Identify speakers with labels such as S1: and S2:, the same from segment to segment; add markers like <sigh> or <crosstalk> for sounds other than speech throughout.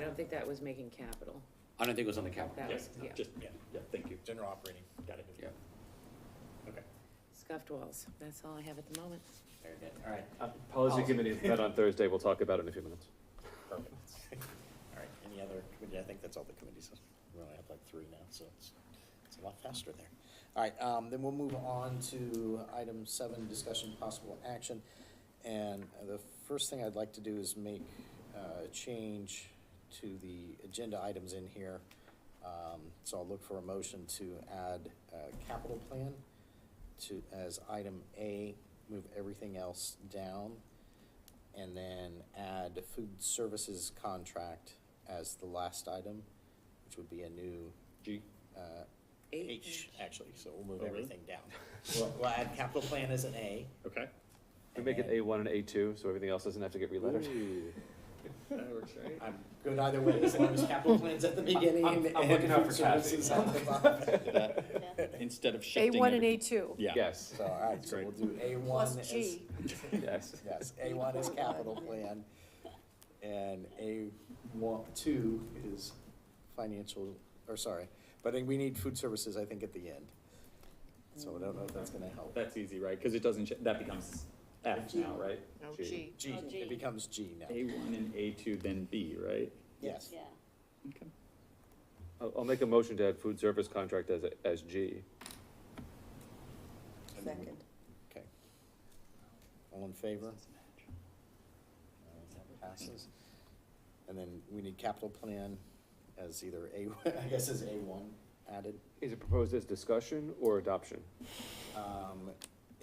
S1: don't think that was making capital.
S2: I don't think it was on the capital.
S1: That
S3: Yeah,
S1: was, yeah,
S3: Just, yeah, yeah, thank you.
S4: General operating.
S3: Got it.
S2: Yeah.
S3: Okay.
S1: scuffed walls. That's all I have at the moment.
S2: Very good, all right.
S5: Policy committee met on Thursday, we'll talk about it in a few minutes.
S4: Perfect. <laughs> All right, any other committee? I think that's all the committees. We only have like three now, so it's, it's a lot faster there. All right, um, then we'll move on to item seven, discussion possible action. And the first thing I'd like to do is make uh, a change to the agenda items in here. Um, so I'll look for a motion to add, uh, capital plan to, as item A, move everything else down. And then add food services contract as the last item, which would be a new,
S5: G,
S4: uh,
S1: Eight.
S4: H, actually, so we'll move
S5: Oh, really?
S4: everything down. We'll, we'll add capital plan as an A.
S5: okay. We make it A one and A two, so everything else doesn't have to get relettered. That works, right?
S4: I'm good either way, as long as capital plan's at the beginning
S2: I'm-
S4: and
S2: I'm looking out
S4: food
S2: for Kathy.
S4: services at the
S2: <laughs>
S4: bottom.
S3: Instead of
S6: A
S3: shifting.
S6: one and
S3: every-
S6: A two.
S3: Yeah.
S5: Yes,
S4: So, all right,
S3: That's
S4: so
S3: great.
S4: we'll do A one
S6: Plus
S4: as.
S6: G.
S5: <laughs> yes.
S4: Yes, A one is capital plan, and A one, two is financial, or sorry, but we need food services, I think, at the end. So I don't know if that's gonna help.
S3: That's easy, right? Because it doesn't, sh- that becomes F now, right?
S6: No,
S5: G.
S6: G.
S4: G,
S7: Oh, G.
S4: it becomes G now,
S3: A one and A two, then B, right?
S4: yes.
S7: Yeah,
S3: Okay.
S5: I'll, I'll make a motion to add food service contract as, a- as G.
S6: Second.
S4: Okay. All in favor? Passes. And then we need capital plan as either A, <laughs> I guess as A one added.
S5: Is it proposed as discussion or adoption?
S4: Um,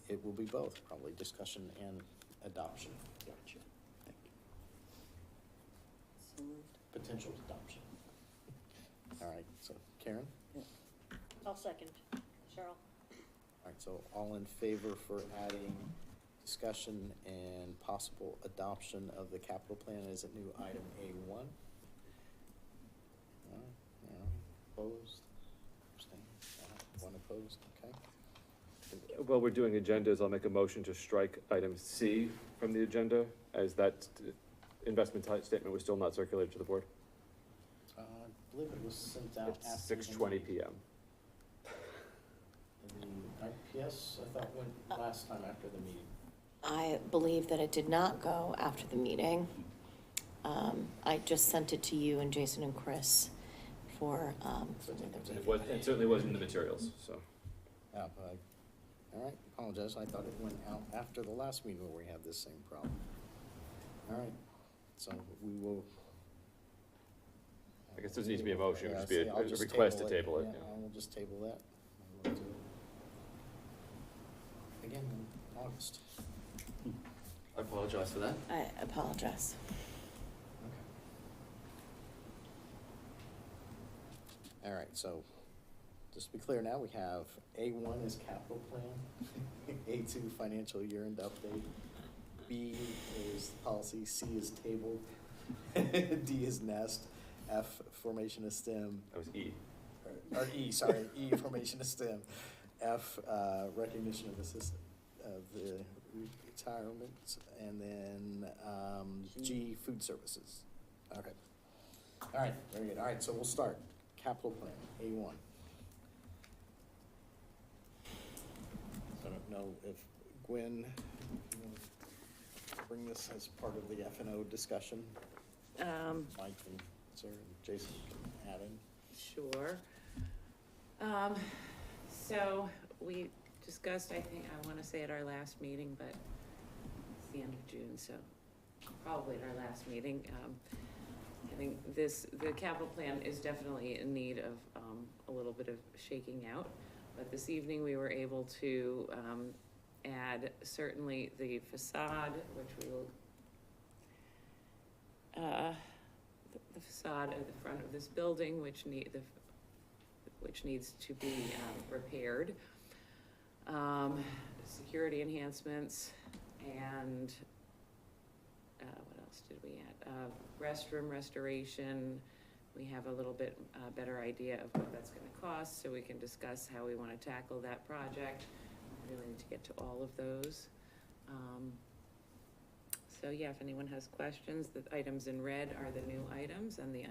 S4: It will be both, probably discussion and adoption,
S3: Gotcha. Thank you.
S7: so moved.
S4: potential adoption. All right, so Karen?
S7: I'll second. Cheryl?
S4: All right, so all in favor for adding discussion and possible adoption of the capital plan as a new item A one? Opposed? Abstained? All right, One opposed, okay.
S5: While we're doing agendas, I'll make a motion to strike item C from the agenda, as that uh, investment type statement was still not circulated to the board.
S4: Uh, I believe it was sent out after.
S5: It's six twenty PM.
S4: The IPS, I thought went last time after the meeting.
S8: I believe that it did not go after the meeting. Um, I just sent it to you and Jason and Chris for, um,
S4: So it's in the-
S5: It was, it certainly wasn't in the materials, so.
S4: Oh, I- all right, apologize, I thought it went out after the last meeting where we had this same problem. All right, so we will.
S5: I guess there needs to be a motion, it would just be a-
S4: Yeah, I'll
S5: a request to table it,
S4: Yeah,
S5: yeah.
S4: I will just table that. I will do it. Again, in August.
S2: I apologize for that.
S8: I apologize.
S4: All right, so just to be clear now, we have A one is capital plan, <laughs> A two financial year end update, B is policy, C is table, <laughs> D is nest, F formation of STEM,
S5: That was E.
S4: or- or E, sorry, E formation of STEM, F uh, recognition of the system, of the retirements, and then um, G food services. Okay. All right, very good. All right, so we'll start. Capital plan, A one. I don't know if Gwen, you wanna bring this as part of the F and O discussion.
S1: Um,
S4: Mike and Sarah and Jason can add in.
S1: Sure. Um, so we discussed, I think, I wanna say at our last meeting, but it's the end of June, so probably at our last meeting. Um, I think this, the capital plan is definitely in need of, um, a little bit of shaking out. But this evening, we were able to, um, add certainly the facade, which we will, uh, the- the facade of the front of this building, which need, the, which needs to be, um, repaired. Um, security enhancements and, uh, what else did we add? Uh, restroom restoration. We have a little bit, uh, better idea of what that's gonna cost, so we can discuss how we wanna tackle that project. We Really need to get to all of those. Um, so yeah, if anyone has questions, the items in red are the new items and the